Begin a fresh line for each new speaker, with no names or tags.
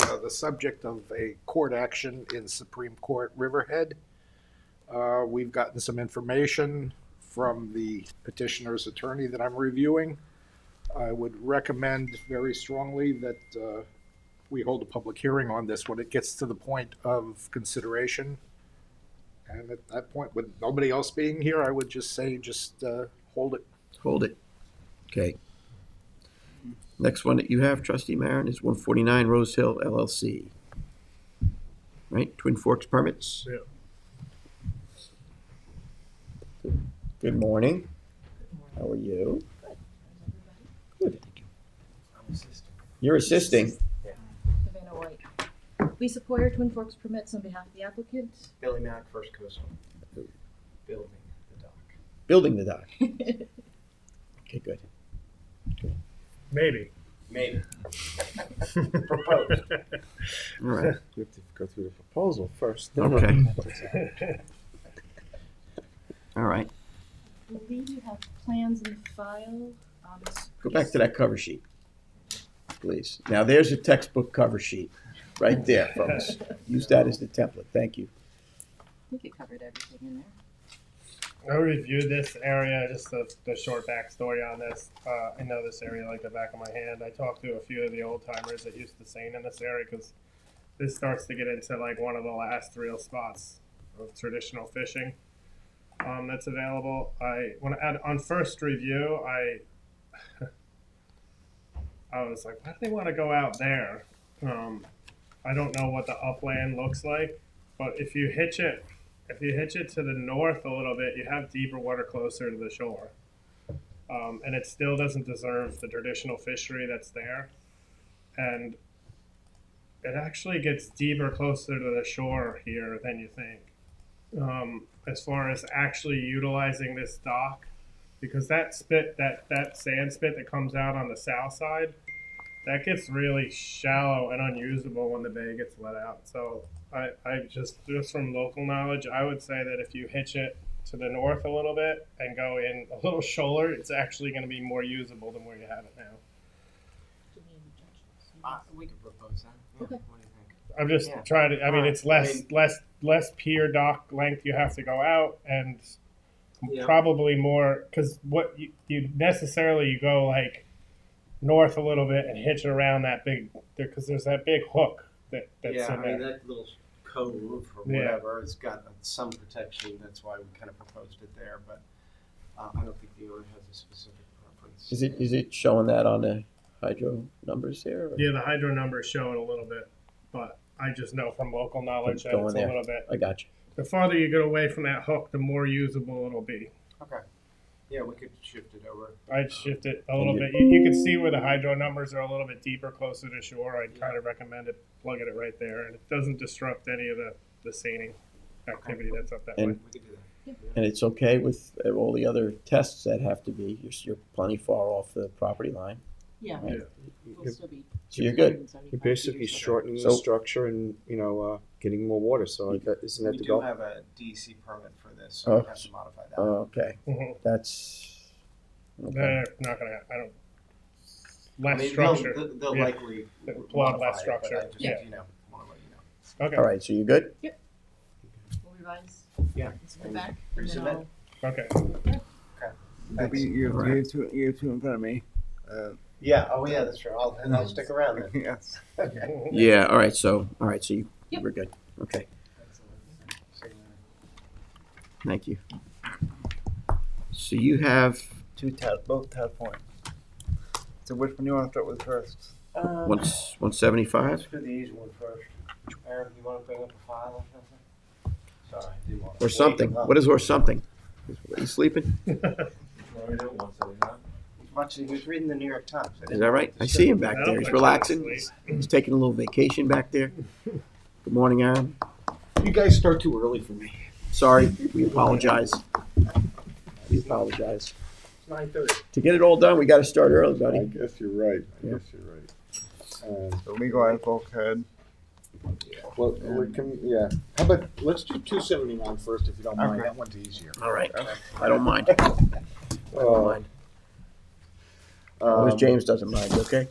uh, the subject of a court action in Supreme Court Riverhead. Uh, We've gotten some information from the petitioner's attorney that I'm reviewing. I would recommend very strongly that uh, we hold a public hearing on this when it gets to the point of consideration. And at that point, with nobody else being here, I would just say, just uh, hold it.
Hold it. Okay. Next one that you have, trustee Marin, is one forty-nine Rose Hill LLC. Right, Twin Forks permits?
Yeah.
Good morning. How are you? Good. You're assisting?
Savannah White. Lisa Poyer, Twin Forks Permits on behalf of the applicant.
Billy Mack, First Coastal. Building the dock.
Building the dock. Okay, good.
Maybe.
Maybe.
Proposed.
All right,
You have to go through the proposal first. then
okay,
That's
all right.
I believe you have plans in the file. um, it's
Go back to that cover sheet, please. Now, there's a textbook cover sheet, right there, folks. Use that as the template, thank you.
I think you covered everything in there.
I reviewed this area, just the, the short backstory on this. Uh, I know this area like the back of my hand. I talked to a few of the old timers that used to sing in this area because this starts to get into like one of the last real spots of traditional fishing um, that's available. I when I, on first review, I I was like, why do they want to go out there? Um, I don't know what the upland looks like, but if you hitch it if you hitch it to the north a little bit, you have deeper water closer to the shore. Um, and it still doesn't deserve the traditional fishery that's there. And it actually gets deeper closer to the shore here than you think. Um, as far as actually utilizing this dock, because that spit, that, that sand spit that comes out on the south side, that gets really shallow and unusable when the bay gets let out. So I, I just just from local knowledge, I would say that if you hitch it to the north a little bit and go in a little shoaler, it's actually going to be more usable than where you have it now.
Uh, we could propose that. Yeah,
Okay.
What do you think?
I'm just
Yeah.
trying to. I mean,
Alright,
it's less
I mean-
less less pier dock length you have to go out, and
Yeah.
probably more because what you, you necessarily you go like north a little bit and hitch it around that big because there's that big hook that that's
yeah,
in
I
there.
mean, that little cove or
Yeah.
whatever, it's got some protection. That's why we kind of proposed it there, but uh, I don't think the owner has a specific preference.
Is it, is it showing that on the hydro numbers there? or-
Yeah, the hydro numbers show it a little bit, but I just know from local knowledge that
Going
it's
there.
a little bit.
I got you.
The farther you get away from that hook, the more usable it'll be.
Okay. Yeah, we could shift it over.
I'd shift it a
And
little
you-
bit. You, you can see where the hydro numbers are a little bit deeper, closer to shore. I'd kind of recommend it, plugging it right there, and it doesn't disrupt any of the the seining activity that's up that way.
And-
We could do that.
And it's okay with uh, all the other tests that have to be, you're, you're plenty far off the property line,
Yeah,
right?
we'll still be.
So you're good.
You're basically shortening
So-
the structure and, you know, uh, getting more water, so that, isn't
we
that the
do
goal?
have a DEC permit for this, so
Oh.
we have to modify
Uh,
that.
Okay,
Mhm.
that's, okay,
They're not gonna. I don't.
I mean,
Less
they'll-
structure.
They'll, they'll
Yeah.
likely
A lot
modify it,
less
but I
structure.
just,
Yeah.
You know, want to let you know.
Okay.
all right, so you're good?
We'll revise.
Yeah.
It's in the back. and then
Resubmit.
I'll-
Okay.
Thanks.
You have,
Alright.
you have two, you have two in front of me. Uh,
Yeah. Oh, yeah. That's true. I'll, and I'll stick around then.
yes.
Okay.
Yeah, all right, so, all right, so you,
Yep.
we're good, okay,
Excellent.
thank you. So you have
Two tab, both tab points. So which one you want to start with first?
Uh,
one, one seventy-five?
Let's do the easy one first. Aaron, you want to bring up a file or something? Sorry, I do want to.
Or something. What is or something? Are you sleeping?
He's watching, he was reading the New York Times. I
Is
didn't
that right? I see him back
I
there.
don't think
He's
so.
relaxing. He's- He's taking a little vacation back there. Good morning, Aaron.
You guys start too early for me.
Sorry, we apologize. We apologize.
It's nine thirty.
To get it all done, we gotta start early,
I
buddy.
guess you're right. I
Yeah.
guess you're right. Um,
The legal article code.
well, we can, yeah. How about let's do 279 first, if you don't mind. That one's easier.
All right. I don't mind. I don't
Uh,
uh,
mind. As long as James doesn't mind, okay?